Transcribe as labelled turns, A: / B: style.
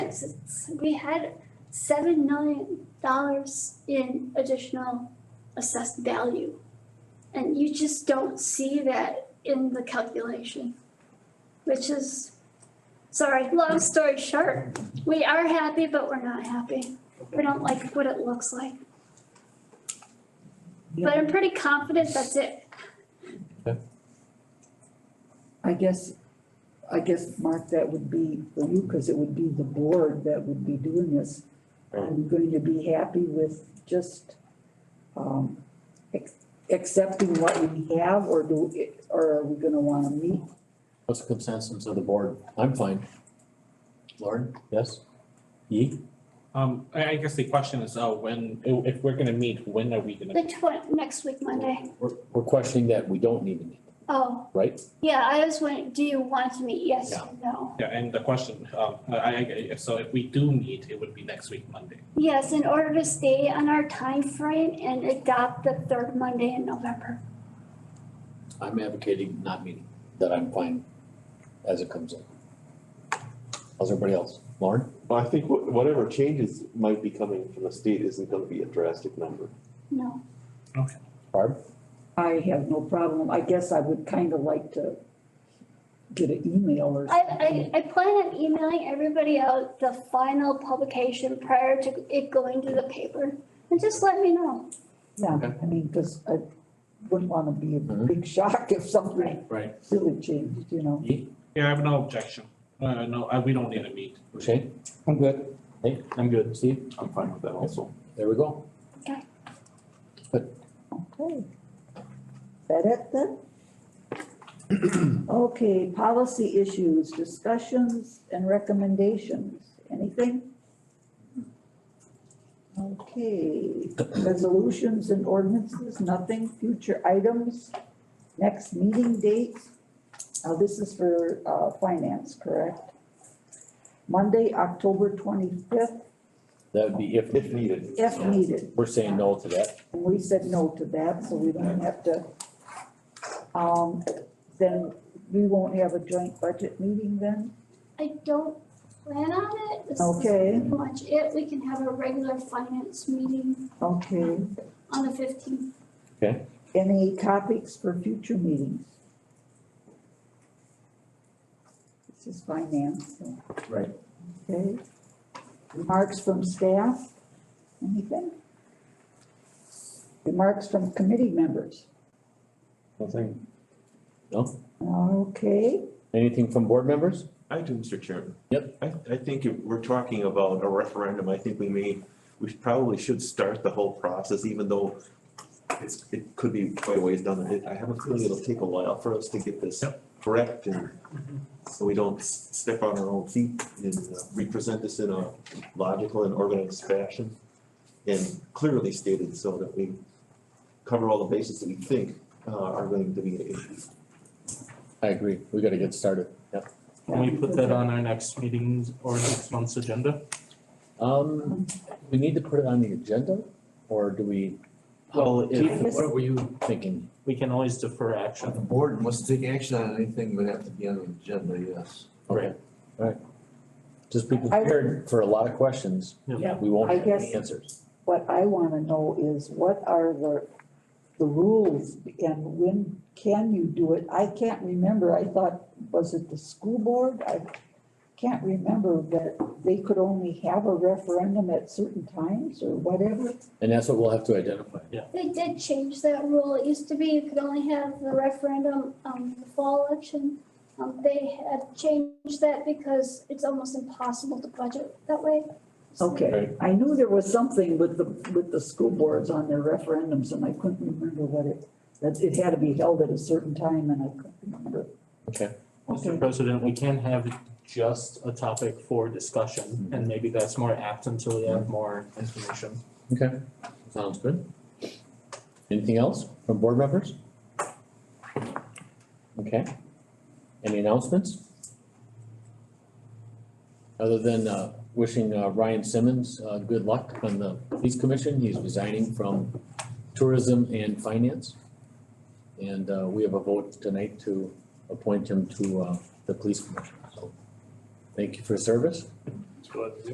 A: s- we had seven million dollars in additional assessed value. And you just don't see that in the calculation, which is, sorry, long story short, we are happy, but we're not happy. We don't like what it looks like. But I'm pretty confident that's it.
B: I guess, I guess, Mark, that would be for you, because it would be the board that would be doing this. Are you going to be happy with just, um, ac- accepting what we have, or do, it- or are we gonna wanna meet?
C: What's the consensus of the board? I'm fine. Lauren, yes? Yee?
D: Um, I, I guess the question is, uh, when, i- if we're gonna meet, when are we gonna?
A: The twen- next week, Monday.
C: We're, we're questioning that we don't need to meet,
A: Oh,
C: right?
A: yeah, I was wondering, do you want to meet? Yes,
C: Yeah.
A: no?
D: Yeah, and the question, um, I, I- I, so if we do meet, it would be next week, Monday.
A: Yes, in order to stay on our time frame and adopt the third Monday in November.
C: I'm advocating not meeting, that I'm fine as it comes in. How's everybody else? Lauren?
E: Well, I think wh- whatever changes might be coming from the state isn't gonna be a drastic number.
A: No,
C: Barb?
B: I have no problem, I guess I would kinda like to get an email or
A: I,
B: something.
A: I, I plan on emailing everybody out the final publication prior to it going to the paper. And just let me know.
B: Yeah, I mean, because I wouldn't wanna be a big shock if something
C: Right.
B: really changed, you know?
C: Yee?
D: Yeah, I have no objection. Uh, no, I, we don't need to meet.
C: Shane? I'm good. Hey, I'm good. Steve?
E: I'm fine with that also.
C: There we go.
B: Okay. Is that it then? Okay, policy issues, discussions and recommendations, anything? Okay, resolutions and ordinances, nothing, future items, next meeting dates. Now, this is for, uh, finance, correct? Monday, October twenty-fifth,
C: That would be if.
E: If needed.
B: if needed.
C: We're saying no to that.
B: And we said no to that, so we don't have to. Um, then we won't have a joint budget meeting then?
A: I don't plan on it. This is
B: Okay.
A: Pretty much it. We can have a regular finance meeting
B: Okay.
A: on the fifteenth.
B: Any topics for future meetings? This is finance. so-
C: Right.
B: Okay. Remarks from staff? Anything? Remarks from committee members?
E: Nothing.
B: Okay,
C: Anything from board members?
F: I do, Mr. Chairman.
C: Yep.
F: I, I think if we're talking about a referendum, I think we may, we should- probably should start the whole process, even though it's, it could be quite a ways down the road. I have a feeling it'll take a while for us to get this correct and so we don't s- step on our own feet and uh, we present this in a logical and organized fashion and clearly stated so that we cover all the bases that we think uh, are going to be an issue.
C: I agree. We gotta get started. Yep.
D: Can we put that on our next meetings or next month's agenda?
C: Um, we need to put it on the agenda, or do we?
D: Well,
C: Keith,
B: if-
C: what were you thinking?
D: We can always defer
G: If
D: action.
G: the board must take action on anything, would have to be on the agenda, yes.
C: Okay, Alright. Just be
B: I-
C: prepared for a lot of questions.
B: Yeah.
C: We won't
B: I
C: have any
B: guess-
C: answers.
B: What I wanna know is what are the, the rules and when can you do it? I can't remember, I thought, was it the school board? I can't remember that they could only have a referendum at certain times or whatever.
C: And that's what we'll have to identify.
A: They did change that rule. It used to be you could only have the referendum, um, the fall election. Um, they had changed that because it's almost impossible to budget that way. So-
B: Okay, I knew there was something with the, with the school boards on their referendums and I couldn't remember what it, that it had to be held at a certain time and I couldn't remember. Okay.
C: Okay.
H: Mr. President, we can have just a topic for discussion, and maybe that's more apt until we have more information.
C: Okay, sounds good. Anything else from board members? Okay. Any announcements? Other than uh, wishing uh, Ryan Simmons uh, good luck on the police commission, he's resigning from tourism and finance. And uh, we have a vote tonight to appoint him to uh, the police commission, so thank you for service.
H: go ahead and do.